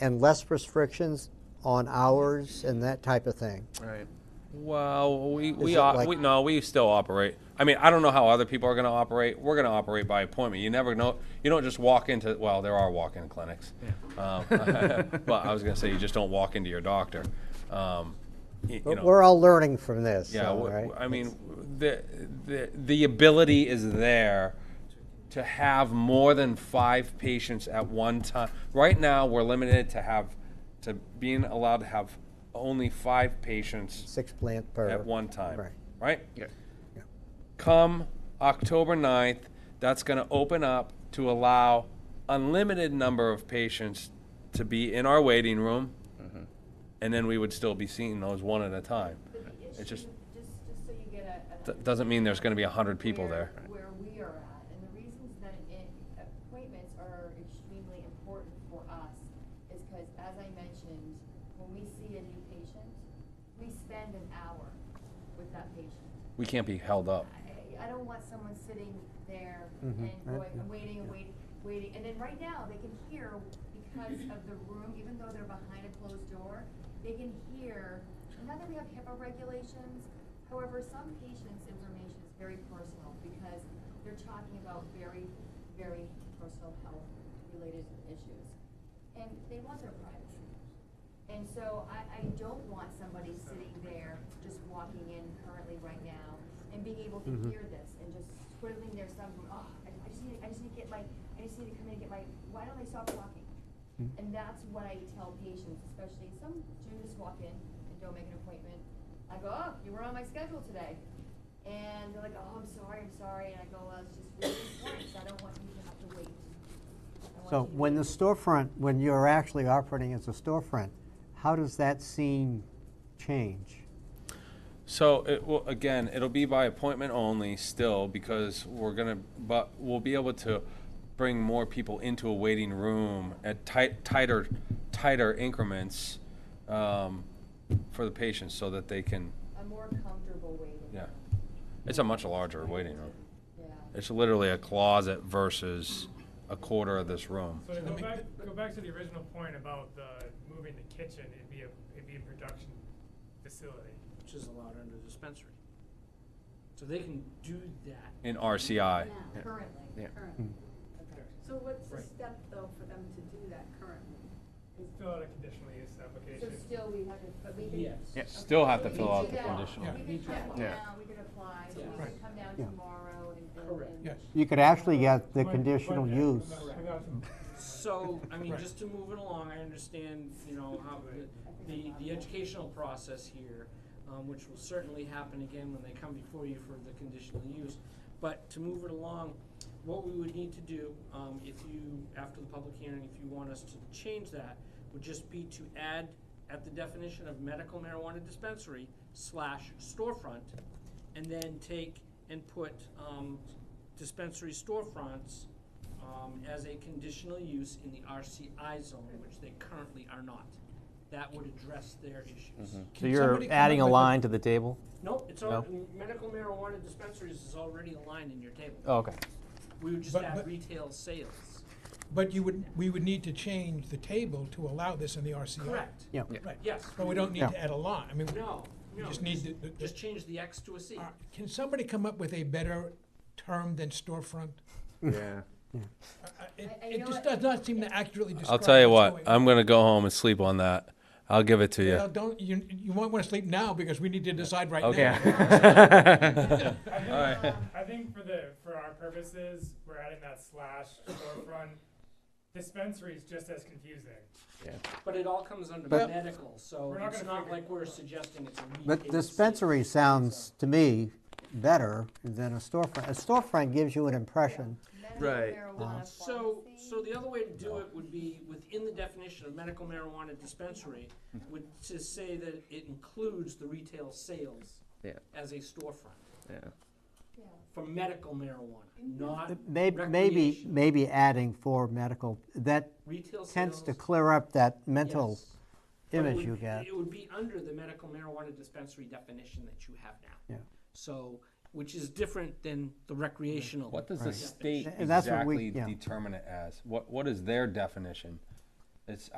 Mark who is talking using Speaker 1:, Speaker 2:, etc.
Speaker 1: and less restrictions on hours and that type of thing.
Speaker 2: Right.
Speaker 3: Well, we we,
Speaker 1: it
Speaker 3: op-
Speaker 1: like-
Speaker 3: we no, we still operate. I mean, I don't know how other people are going to operate. We're going to operate by appointment. You never know. You don't just walk into. Well, there are walk-in clinics, um, but I was going to say you just don't walk into your doctor. Um, y- you,
Speaker 1: But
Speaker 3: know,
Speaker 1: we're all learning from this.
Speaker 3: yeah.
Speaker 1: so,
Speaker 3: w-
Speaker 1: right?
Speaker 3: w- I mean, the, the the ability is there to have more than five patients at one time. Right now, we're limited to have to being allowed to have only five patients
Speaker 1: six plant per
Speaker 3: at one time,
Speaker 1: Right.
Speaker 3: right?
Speaker 2: Yeah.
Speaker 3: Come October 9th, that's going to open up to allow unlimited number of patients to be in our waiting room, and then we would still be seeing those one at a time.
Speaker 4: But the
Speaker 3: It's
Speaker 4: issue,
Speaker 3: just-
Speaker 4: just, just so you get a.
Speaker 3: That doesn't mean there's going to be 100 people there.
Speaker 4: Where we are at, and the reasons that it- appointments are extremely important for us is because, as I mentioned, when we see a new patient, we spend an hour with that patient.
Speaker 3: We can't be held up.
Speaker 4: I, I don't want someone sitting there
Speaker 1: Mhm.
Speaker 4: and
Speaker 1: Right,
Speaker 4: going,
Speaker 1: yeah,
Speaker 4: and waiting, and waiting, waiting, and then right now, they can hear because of the room, even though they're behind a closed door, they can hear, and now that we have HIPAA regulations, however, some patients' information is very personal because they're talking about very, very personal health-related issues. And they want their privacy. And so I, I don't want somebody sitting there, just walking in currently right now, and being able to
Speaker 1: Mm-hmm.
Speaker 4: hear this, and just twiddling their thumb, going, oh, I I just need, I just need to get my, I just need to come in and get my, why don't they stop walking?
Speaker 1: Mm-hmm.
Speaker 4: And that's what I tell patients, especially, some do just walk in and don't make an appointment. I go, oh, you were on my schedule today. And they're like, oh, I'm sorry, I'm sorry, and I go, well, it's just really important, so I don't want you to have to wait. I want
Speaker 1: So
Speaker 4: you to
Speaker 1: when the
Speaker 4: wait."
Speaker 1: storefront, when you're actually operating as a storefront, how does that scene change?
Speaker 3: So it will, again, it'll be by appointment only still because we're gonna, but we'll be able to bring more people into a waiting room at tight, tighter, tighter increments um, for the patients so that they can,
Speaker 4: A more comfortable waiting.
Speaker 3: yeah.
Speaker 4: room.
Speaker 3: It's a much larger waiting room.
Speaker 4: Yeah.
Speaker 3: It's literally a closet versus a quarter of this room.
Speaker 5: So to go back, go back to the original point about the moving the kitchen, it'd be a, it'd be a production facility.
Speaker 6: which is allowed under dispensary. So they can do that.
Speaker 3: In RCI,
Speaker 7: now,
Speaker 4: Currently.
Speaker 2: Yeah.
Speaker 7: currently.
Speaker 4: Okay.
Speaker 7: So what's the
Speaker 6: Right.
Speaker 7: step though for them to do that currently?
Speaker 5: It's fill out a conditional use
Speaker 4: So
Speaker 5: application.
Speaker 4: still we have to, but we can.
Speaker 6: Yes.
Speaker 2: Yeah.
Speaker 3: Still have
Speaker 4: Okay,
Speaker 3: to
Speaker 4: so
Speaker 3: fill
Speaker 4: we can
Speaker 3: out
Speaker 4: do
Speaker 3: the
Speaker 4: that.
Speaker 3: conditional.
Speaker 4: We can come
Speaker 2: Yeah.
Speaker 4: down, we can apply, so
Speaker 6: Yeah.
Speaker 4: we can
Speaker 6: Right.
Speaker 4: come down
Speaker 1: Yeah.
Speaker 4: tomorrow and build
Speaker 6: Correct.
Speaker 4: and.
Speaker 6: Yes.
Speaker 1: You could actually get the
Speaker 5: But-
Speaker 1: conditional
Speaker 5: but, uh,
Speaker 1: use.
Speaker 5: without-
Speaker 6: So, I mean,
Speaker 5: Right.
Speaker 6: just to move it along, I understand, you know, how the, the, the educational process here, um, which will certainly happen again when they come before you for the conditional use. But to move it along, what we would need to do, um, if you, after the public hearing, if you want us to change that, would just be to add at the definition of medical marijuana dispensary slash storefront, and then take and put, um, dispensary storefronts, um, as a conditional use in the RCI zone, which they currently are not. That would address their issues.
Speaker 8: So you're adding a line to the table?
Speaker 6: Nope, it's all, medical marijuana dispensaries is already a line in your table.
Speaker 8: Oh, okay.
Speaker 6: We would just
Speaker 9: But-
Speaker 6: add
Speaker 9: but-
Speaker 6: retail sales.
Speaker 9: But you would, we would need to change the table to allow this in the RCI.
Speaker 6: Correct.
Speaker 1: Yeah.
Speaker 9: Right.
Speaker 6: Yes.
Speaker 9: But we don't need
Speaker 1: Yeah.
Speaker 9: to add a line. I mean,
Speaker 6: No, no.
Speaker 9: just need to-
Speaker 6: Just change the X to a C.
Speaker 9: uh, can somebody come up with a better term than storefront?
Speaker 2: Yeah.
Speaker 9: Uh, uh, It,
Speaker 4: I- I know
Speaker 9: it just
Speaker 4: it-
Speaker 9: does not seem to accurately describe.
Speaker 3: I'll tell you
Speaker 9: what's
Speaker 3: what,
Speaker 9: going on.
Speaker 3: I'm gonna go home and sleep on that. I'll give it to
Speaker 9: Well,
Speaker 3: you.
Speaker 9: don't, you, you won't want to sleep now because we need to decide right now.
Speaker 3: Okay.
Speaker 5: I think-
Speaker 3: Alright.
Speaker 5: I think for the, for our purposes, we're adding that slash storefront. Dispensary is just as confusing.
Speaker 6: But it all comes under
Speaker 1: But-
Speaker 6: medical, so
Speaker 5: We're not
Speaker 6: it's
Speaker 5: gonna
Speaker 6: not
Speaker 5: figure it
Speaker 6: like we're suggesting it's a retail.
Speaker 1: But
Speaker 6: sale.
Speaker 1: dispensary sounds to me better than a storefront. A storefront gives you an impression.
Speaker 4: Medical
Speaker 2: Right.
Speaker 6: Uh-huh.
Speaker 4: marijuana
Speaker 6: So,
Speaker 4: pharmacy.
Speaker 6: so the other way to do it would be within the definition of medical marijuana dispensary,
Speaker 1: Mm-hmm.
Speaker 6: would to say that it includes the retail sales
Speaker 2: Yeah.
Speaker 6: as a storefront
Speaker 2: Yeah.
Speaker 4: Yeah.
Speaker 6: for medical marijuana, not
Speaker 1: Maybe, maybe,
Speaker 6: recreational.
Speaker 1: maybe adding for medical, that
Speaker 6: Retail sales.
Speaker 1: tends to clear up that mental
Speaker 6: yes. But it
Speaker 1: image
Speaker 6: would-
Speaker 1: you get.
Speaker 6: It would be under the medical marijuana dispensary definition that you have now.
Speaker 1: Yeah.
Speaker 6: So, which is different than the recreational.
Speaker 3: What does the state
Speaker 1: And that's what we-
Speaker 3: exactly
Speaker 1: yeah.
Speaker 3: determine it as? What, what is their definition? It's